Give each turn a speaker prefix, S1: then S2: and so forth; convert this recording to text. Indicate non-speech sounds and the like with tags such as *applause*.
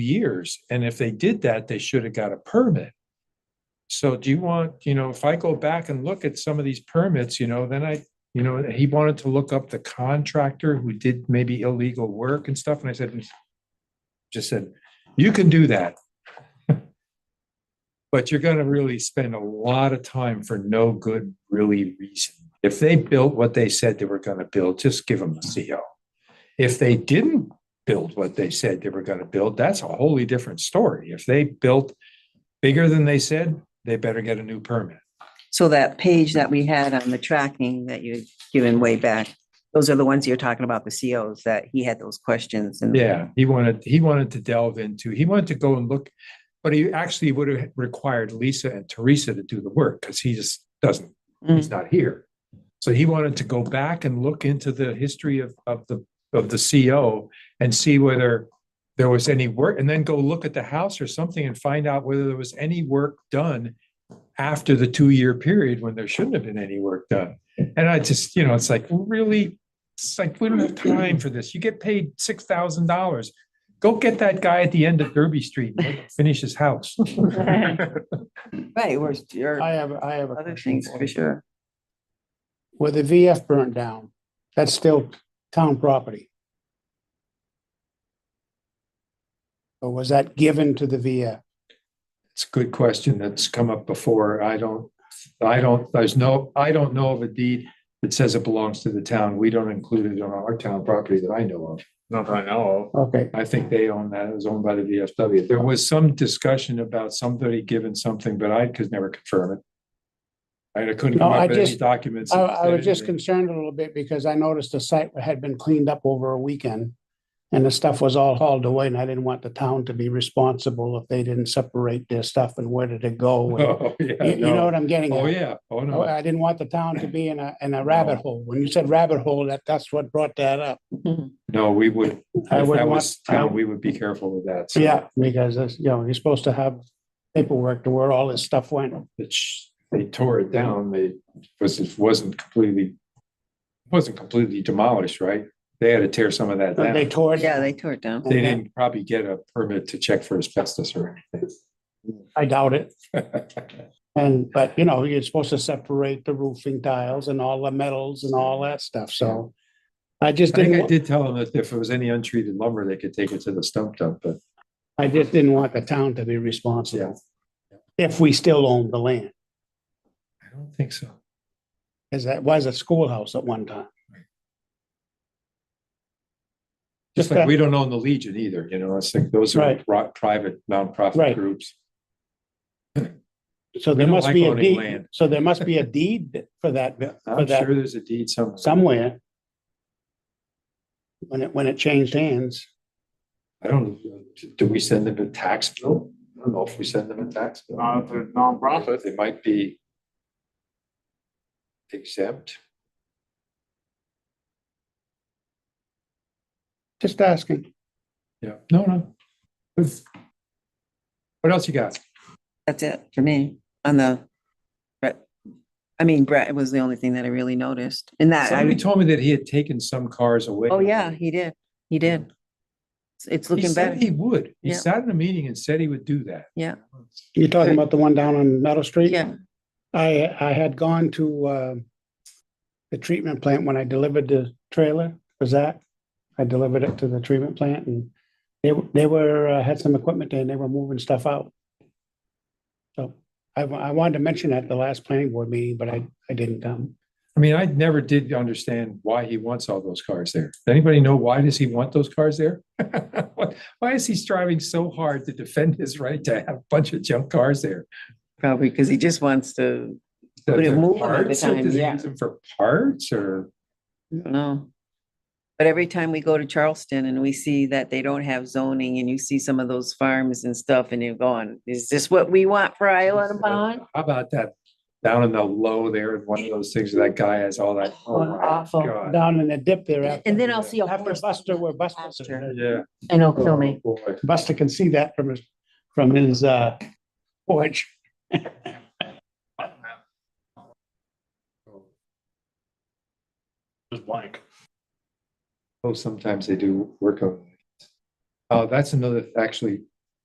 S1: years. And if they did that, they should have got a permit. So do you want, you know, if I go back and look at some of these permits, you know, then I, you know, he wanted to look up the contractor who did maybe illegal work and stuff. And I said, just said, you can do that. *laughs* But you're gonna really spend a lot of time for no good really reason. If they built what they said they were gonna build, just give them a CO. If they didn't build what they said they were gonna build, that's a wholly different story. If they built bigger than they said, they better get a new permit.
S2: So that page that we had on the tracking that you had given way back, those are the ones you're talking about, the COs, that he had those questions and.
S1: Yeah, he wanted, he wanted to delve into, he wanted to go and look, but he actually would have required Lisa and Teresa to do the work because he just doesn't
S2: Mm,
S1: he's not here. So he wanted to go back and look into the history of, of the, of the CO and see whether there was any work, and then go look at the house or something and find out whether there was any work done after the two-year period when there shouldn't have been any work done. And I just, you know, it's like, really, it's like, we don't have time for this. You get paid six thousand dollars. Go get that guy at the end of Derby Street, and let him finish his house.
S2: Right, we're, you're,
S3: I have, I have a
S2: other
S3: question.
S2: things
S3: for
S2: for
S3: you.
S2: sure.
S3: Where the VF burnt down, that's still town property. Or was that given to the VF?
S1: It's a good question that's come up before. I don't, I don't, there's no, I don't know of a deed that says it belongs to the town. We don't include it on our town property that I know of.
S4: Not that I know
S3: Okay,
S1: I think they own that. It was owned by the VFW. There was some discussion about somebody giving something, but I could never confirm it. I couldn't come
S3: No, I
S1: up with any
S3: just-
S1: documents.
S3: I,
S1: that
S3: I
S1: said
S3: was just
S1: anything.
S3: concerned a little bit because I noticed the site had been cleaned up over a weekend. And the stuff was all hauled away and I didn't want the town to be responsible if they didn't separate their stuff and where did it *laughs* go? and-
S1: *laughs* Oh, yeah,
S3: You, you know
S1: no.
S3: what I'm getting at?
S1: Oh, yeah. Oh,
S3: Oh,
S1: no.
S3: I didn't want the town to be in a, in a rabbit hole. When you said rabbit hole, that, that's what brought that up.
S1: No, we would, if
S3: I
S1: that
S3: wouldn't want-
S1: was town, we would be careful with that. So
S3: Yeah, because that's, you know, you're supposed to have paperwork to where all this stuff went.
S1: that sh- they tore it down, they, was, it wasn't completely, wasn't completely demolished, right? They had to tear some of that down.
S3: They
S1: They
S3: tore it.
S2: Yeah, they tore it down.
S1: didn't probably get a permit to check for asbestos or
S3: I
S1: *laughs*
S3: doubt it.
S1: anything.
S3: And, but you know, you're supposed to separate the roofing tiles and all the metals and all that stuff. So I just
S1: I think I
S3: didn't, wa-
S1: did tell them that if it was any untreated lumber, they could take it to the stump dump, but
S3: I just didn't want the town to be responsible. If we still own the land,
S1: I don't think so.
S3: because that was a schoolhouse at one time.
S1: Just
S3: Okay.
S1: like we don't own the Legion either, you know, it's like those are
S3: Right.
S1: pri- private nonprofit
S3: Right.
S1: groups.
S3: So
S1: We
S3: there
S1: don't
S3: must
S1: like
S3: be a
S1: owning
S3: deed,
S1: land.
S3: so there must be a deed for that, for
S1: *laughs* I'm
S3: that
S1: sure there's a deed somewhere.
S3: somewhere. When it, when it changed hands.
S1: I don't, do we send them a tax bill? I don't know if we send them a tax bill.
S4: of. It's a nonprofit.
S1: They might be exempt.
S3: Just asking.
S1: Yeah, no, no. What else you got?
S2: That's it for me on the Brett. I mean, Brett was the only thing that I really noticed and that,
S1: Somebody
S2: I,
S1: told me that he had taken some cars away.
S2: oh yeah, he did. He did. It's- It's
S1: He
S2: looking
S1: said
S2: better.
S1: he would. He
S2: Yeah.
S1: sat in a meeting and said he would do that.
S2: Yeah,
S3: You're talking about the one down on Meadow Street?
S2: yeah.
S3: I, I had gone to, uh, the treatment plant when I delivered the trailer for Zach. I delivered it to the treatment plant and they, were- they were, uh, had some equipment there and they were moving stuff out. So I, wa- I wanted to mention that at the last planning board meeting, but I, I didn't come.
S1: I mean, I never did understand why he wants all those cars there. Does anybody know why does he want those cars there? *laughs* Why- Why is he striving so hard to defend his right to have a bunch of junk cars there?
S2: Probably because he just wants to,
S1: That
S2: Put it
S1: they're
S2: moving all the
S1: parts, or
S2: time,
S1: does he
S2: yeah.
S1: use them For parts or?
S2: I don't know. But every time we go to Charleston and we see that they don't have zoning and you see some of those farms and stuff and you're going, is this what we want for Isle of Bonne?
S1: How about that down in the low there, one of those things that guy has all that. oh my
S2: Awful.
S1: God.
S3: Down in the dip there after.
S2: And then I'll see a
S3: After
S2: horse.
S3: Buster, where Buster,
S2: Pasture.
S1: Yeah.
S2: And it'll kill me.
S1: Oh, Boy.
S3: Buster can see that from his, from his, uh, porch. *laughs*
S4: It's blank.
S1: Oh, sometimes they do work on. Oh, Uh, that's another, actually,